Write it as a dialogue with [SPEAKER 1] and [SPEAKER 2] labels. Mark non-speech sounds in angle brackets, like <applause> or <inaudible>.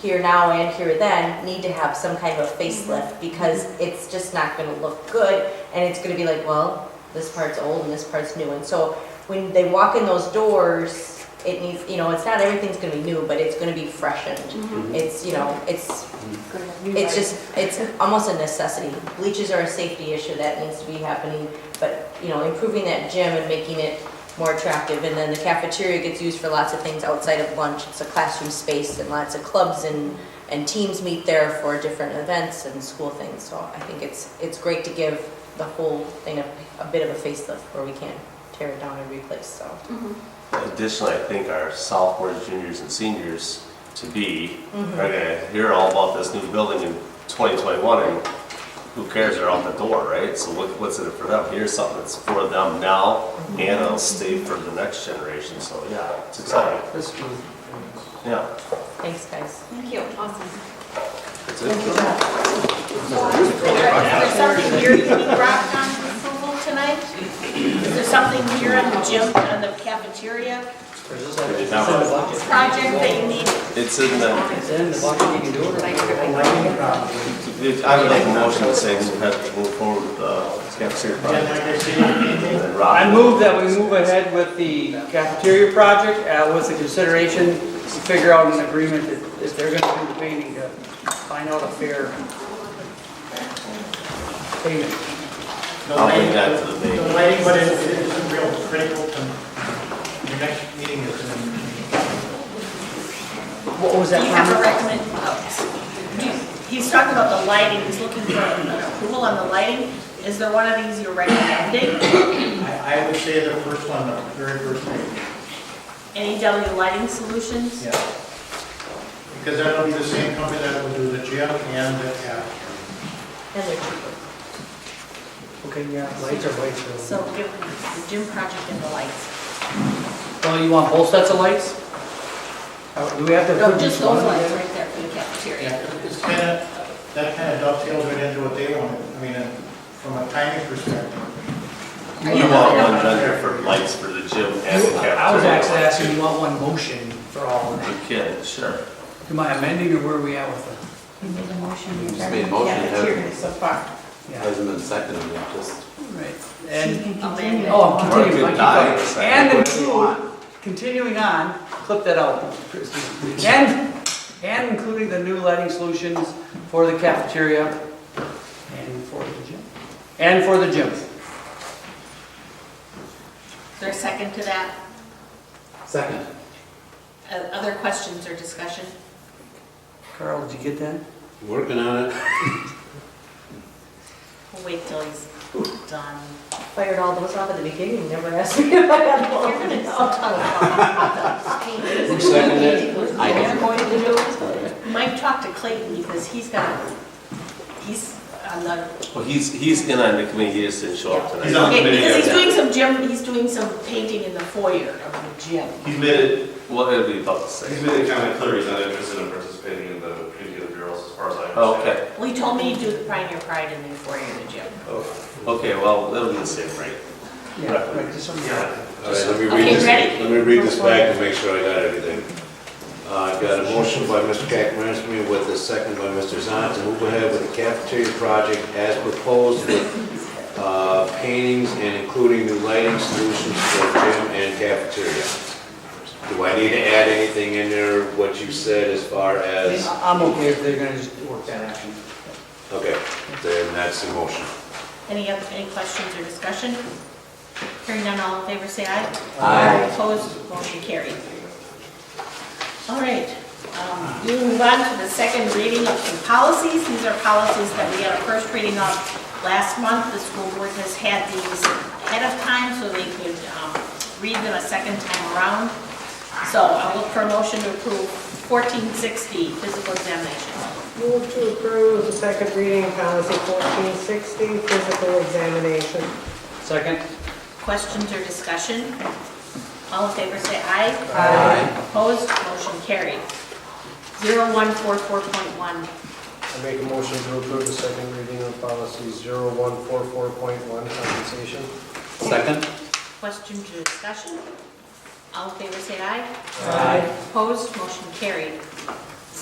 [SPEAKER 1] here now and here then need to have some kind of facelift because it's just not gonna look good and it's gonna be like, well, this part's old and this part's new. And so when they walk in those doors, it needs, you know, it's not everything's gonna be new, but it's gonna be freshened. It's, you know, it's, it's just, it's almost a necessity. Bleachers are a safety issue that needs to be happening, but, you know, improving that gym and making it more attractive. And then the cafeteria gets used for lots of things outside of lunch. It's a classroom space and lots of clubs and, and teams meet there for different events and school things. So I think it's, it's great to give the whole thing a, a bit of a facelift where we can tear it down and replace, so.
[SPEAKER 2] Additionally, I think our sophomores, juniors, and seniors to be are gonna hear all about this new building in 2021, and who cares? They're out the door, right? So what, what's in it for them? Here's something that's for them now, and it'll stay for the next generation. So yeah, it's exciting.
[SPEAKER 3] That's true.
[SPEAKER 2] Yeah.
[SPEAKER 1] Thanks, guys.
[SPEAKER 4] Thank you, awesome.
[SPEAKER 2] That's it.
[SPEAKER 5] Is there is there something here you need rock on approval tonight? Is there something here in the gym, in the cafeteria
[SPEAKER 3] There's just like-
[SPEAKER 2] Did
[SPEAKER 3] It's in the
[SPEAKER 2] not realize-
[SPEAKER 3] bucket.
[SPEAKER 5] project that you need?
[SPEAKER 2] It's in the,
[SPEAKER 3] It's in the bucket, you can do it.
[SPEAKER 2] it- I would like a motion to say we have to move forward with the cafeteria project. And Rob-
[SPEAKER 3] I move that we move ahead with the cafeteria project uh, with the consideration to figure out an agreement that if they're gonna do the painting, to find out a fair payment.
[SPEAKER 6] No
[SPEAKER 2] I'll bring
[SPEAKER 6] lighting,
[SPEAKER 2] that to the meeting.
[SPEAKER 6] No lighting, but it it is real critical to, your next meeting is in,
[SPEAKER 3] What was
[SPEAKER 5] Do you have
[SPEAKER 3] that?
[SPEAKER 5] a recommend, oh, do you- he's talking about the lighting, he's looking for an approval on the lighting. Is there one of these you're recommending?
[SPEAKER 6] I, I would say the first one, the very first meeting,
[SPEAKER 5] NEW Lighting Solutions?
[SPEAKER 6] yeah. Because that'll be the same company that will do the gym and the, yeah.
[SPEAKER 1] And they're cheaper.
[SPEAKER 3] Okay, yeah, lights are white,
[SPEAKER 5] So give the gym project and the lights.
[SPEAKER 3] Well, Oh, you want both sets of lights? Uh, Do we have to
[SPEAKER 5] No,
[SPEAKER 3] approve
[SPEAKER 5] just
[SPEAKER 3] each one?
[SPEAKER 5] those lights right there for the cafeteria.
[SPEAKER 6] Yeah, It's kind of, that kind of dovetails right into what they wanted, I mean, uh, from a timing perspective.
[SPEAKER 2] You want one vendor for lights for the gym and the cafeteria.
[SPEAKER 3] I was actually asking, you want one motion for all of that?
[SPEAKER 2] You can, sure.
[SPEAKER 3] Am I amending or where are we at with
[SPEAKER 4] You made a motion.
[SPEAKER 7] You just made a motion, haven't you?
[SPEAKER 4] Cafeteria so far.
[SPEAKER 3] it? Yeah,
[SPEAKER 7] Hasn't been seconded yet, just.
[SPEAKER 3] right.
[SPEAKER 4] You
[SPEAKER 3] And,
[SPEAKER 4] can continue.
[SPEAKER 5] Amanda.
[SPEAKER 3] oh,
[SPEAKER 2] Or it
[SPEAKER 3] continue,
[SPEAKER 2] could
[SPEAKER 3] I keep
[SPEAKER 2] die.
[SPEAKER 3] going. And include, continuing on, clip that out, Christie. And, and including the new lighting solutions for the cafeteria and for the gym, and for the gym.
[SPEAKER 5] Is there a second to that?
[SPEAKER 7] Second.
[SPEAKER 5] Uh, Other questions or discussion?
[SPEAKER 3] Carl, did you get that?
[SPEAKER 7] Working on it.
[SPEAKER 5] We'll wait till he's done.
[SPEAKER 1] Fired all those off at the beginning, never asked me <laughs> if I had
[SPEAKER 5] You're
[SPEAKER 1] one.
[SPEAKER 5] gonna talk to
[SPEAKER 7] Who seconded it? I did.
[SPEAKER 5] Mike talked to Clayton because he's got, he's on the,
[SPEAKER 2] Well, he's, he's in on the committee, he just didn't show up tonight.
[SPEAKER 6] He's on-
[SPEAKER 5] Okay, because he's
[SPEAKER 2] yeah.
[SPEAKER 5] doing some gym, he's doing some painting in the foyer of the gym.
[SPEAKER 2] He's made it, well, it'll be about the
[SPEAKER 8] He's
[SPEAKER 2] same.
[SPEAKER 8] made it kind of clear he's not interested in participating in the community of the bureaus as far as I understand.
[SPEAKER 2] Okay,
[SPEAKER 5] Well, he told me to do the Pioneer Pride in the foyer of the gym.
[SPEAKER 2] okay, well, it'll be the same, right?
[SPEAKER 3] Yeah, right, just one.
[SPEAKER 7] All right, let me
[SPEAKER 5] Okay,
[SPEAKER 7] read this,
[SPEAKER 5] ready?
[SPEAKER 7] let me read this back to make sure I got everything. Uh, I've got a motion by Mr. Cackmarsmy with a second by Mr. Zahn to move ahead with the cafeteria project as proposed with uh, paintings and including new lighting solutions for gym and cafeteria. Do I need to add anything in there, what you said as far as?
[SPEAKER 3] I'm okay if they're gonna just work that action.
[SPEAKER 7] Okay, then that's the motion.
[SPEAKER 5] Any, oth- any questions or discussion? Hearing none, all in favor, say aye.
[SPEAKER 7] Aye.
[SPEAKER 5] Opposed, motion carried. All right, um, we move on to the second reading of some policies. These are policies that we had a first reading of last month. The school board has had these ahead of time so they could um, read them a second time around. So I'll look for a motion to approve 1460, physical examination.
[SPEAKER 9] Move to approve the second reading of policy 1460, physical examination.
[SPEAKER 3] Second?
[SPEAKER 5] Questions or discussion? All in favor, say aye.
[SPEAKER 9] Aye.
[SPEAKER 5] Opposed, motion carried. 0144.1,
[SPEAKER 10] I make a motion to approve the second reading of policy 0144.1 compensation.
[SPEAKER 7] Second?
[SPEAKER 5] questions or discussion? All in favor, say aye.
[SPEAKER 10] Aye.
[SPEAKER 5] Opposed, motion carried.